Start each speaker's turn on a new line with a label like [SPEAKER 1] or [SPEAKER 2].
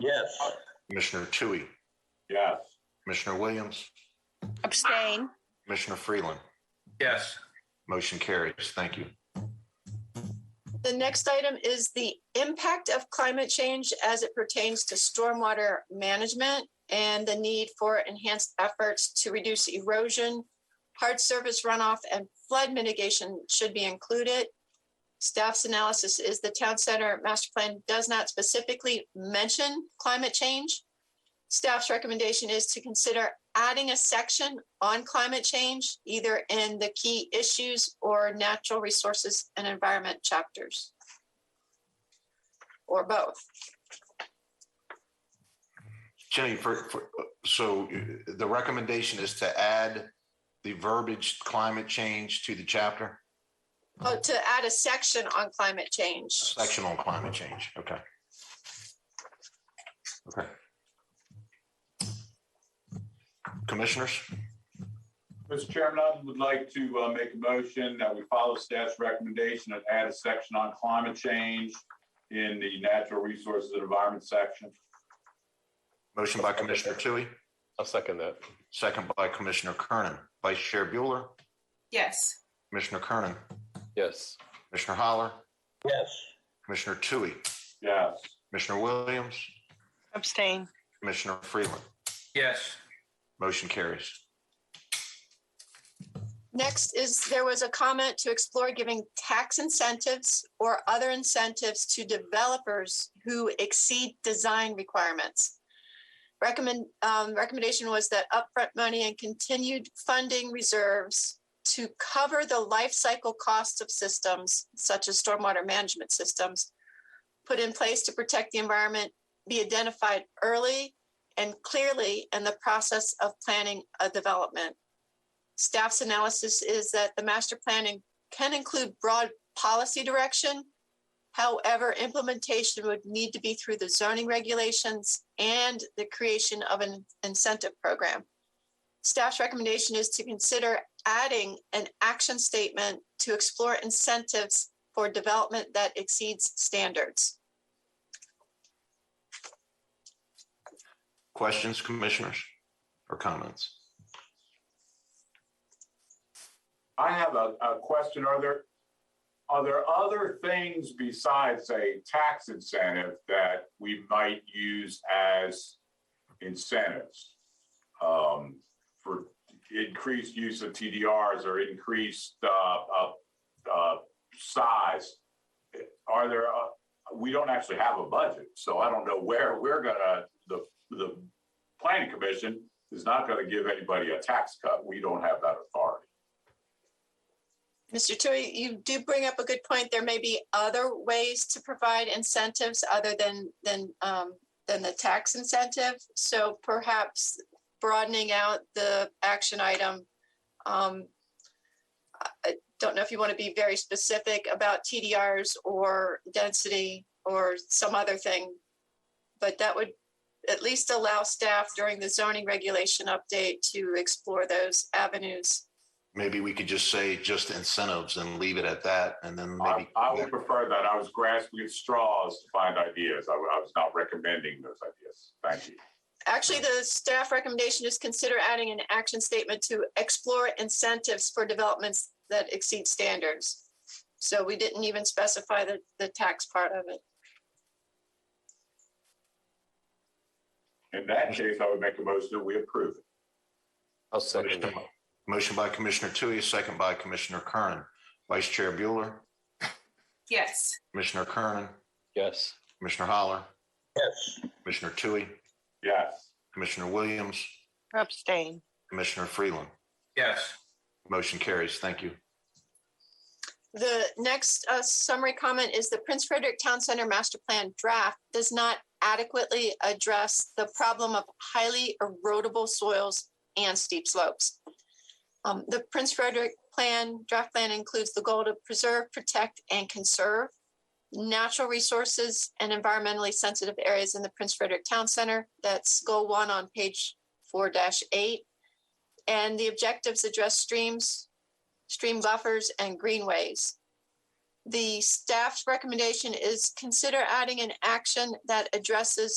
[SPEAKER 1] Yes.
[SPEAKER 2] Commissioner Tui,
[SPEAKER 1] Yes.
[SPEAKER 2] Commissioner Williams,
[SPEAKER 3] Abstain.
[SPEAKER 2] Commissioner Freeland.
[SPEAKER 1] Yes.
[SPEAKER 2] Motion carries. Thank you.
[SPEAKER 4] The next item is the impact of climate change as it pertains to stormwater management and the need for enhanced efforts to reduce erosion, hard surface runoff, and flood mitigation should be included. Staff's analysis is the town center master plan does not specifically mention climate change. Staff's recommendation is to consider adding a section on climate change, either in the key issues or natural resources and environment chapters. Or both.
[SPEAKER 2] Jenny, for, for, so uh, the recommendation is to add the verbiage climate change to the chapter,
[SPEAKER 4] Oh, to add a section on climate change.
[SPEAKER 2] section on climate change. Okay. Okay. Commissioners,
[SPEAKER 1] Mr. Chairman, I would like to uh, make a motion that we follow staff's recommendation and add a section on climate change in the natural resources and environment section.
[SPEAKER 2] motion by Commissioner Tui,
[SPEAKER 5] I'll second that.
[SPEAKER 2] second by Commissioner Kernan. Vice Chair Bueller,
[SPEAKER 6] yes,
[SPEAKER 2] Commissioner Kernan,
[SPEAKER 5] Yes.
[SPEAKER 2] Commissioner Holler,
[SPEAKER 1] Yes.
[SPEAKER 2] Commissioner Tui,
[SPEAKER 1] Yes.
[SPEAKER 2] Commissioner Williams,
[SPEAKER 3] Abstain.
[SPEAKER 2] Commissioner Freeland.
[SPEAKER 1] Yes.
[SPEAKER 2] Motion carries.
[SPEAKER 4] Next is, there was a comment to explore giving tax incentives or other incentives to developers who exceed design requirements. Recommend, um, recommendation was that upfront money and continued funding reserves to cover the life cycle costs of systems such as stormwater management systems put in place to protect the environment be identified early and clearly in the process of planning a development. Staff's analysis is that the master planning can include broad policy direction. However, implementation would need to be through the zoning regulations and the creation of an incentive program. Staff's recommendation is to consider adding an action statement to explore incentives for development that exceeds standards.
[SPEAKER 2] Questions, commissioners, or comments?
[SPEAKER 1] I have a, a question. Are there, are there other things besides a tax incentive that we might use as incentives? um, For increased use of TDRs or increased, uh, uh, uh, size? Are there, uh, we don't actually have a budget, so I don't know where we're gonna, the, the planning commission is not gonna give anybody a tax cut. We don't have that authority.
[SPEAKER 4] Mr. Tui, you do bring up a good point. There may be other ways to provide incentives other than than um, than the tax incentive. So perhaps broadening out the action item. Um, I I don't know if you want to be very specific about TDRs or density or some other thing, but that would at least allow staff during the zoning regulation update to explore those avenues.
[SPEAKER 2] Maybe we could just say just incentives and leave it at that and then
[SPEAKER 1] I,
[SPEAKER 2] maybe.
[SPEAKER 1] I would prefer that. I was grasping at straws to find ideas. I, wa- I was not recommending those ideas. Thank you.
[SPEAKER 4] Actually, the staff recommendation is consider adding an action statement to explore incentives for developments that exceed standards. So we didn't even specify the, the tax part of it.
[SPEAKER 1] In that case, I would make a motion that we approve it.
[SPEAKER 5] I'll second that.
[SPEAKER 2] Motion by Commissioner Tui, second by Commissioner Kernan. Vice Chair Bueller,
[SPEAKER 6] yes,
[SPEAKER 2] Commissioner Kernan,
[SPEAKER 5] Yes.
[SPEAKER 2] Commissioner Holler. Yes. Commissioner Tui,
[SPEAKER 1] Yes.
[SPEAKER 2] Commissioner Williams,
[SPEAKER 3] Abstain.
[SPEAKER 2] Commissioner Freeland.
[SPEAKER 1] Yes.
[SPEAKER 2] Motion carries. Thank you.
[SPEAKER 4] The next uh, summary comment is the Prince Frederick Town Center Master Plan draft does not adequately address the problem of highly erodible soils and steep slopes. Um, The Prince Frederick Plan, draft plan includes the goal to preserve, protect, and conserve natural resources and environmentally sensitive areas in the Prince Frederick Town Center. That's goal one on page four eight. And the objectives address streams, stream buffers, and greenways. The staff's recommendation is consider adding an action that addresses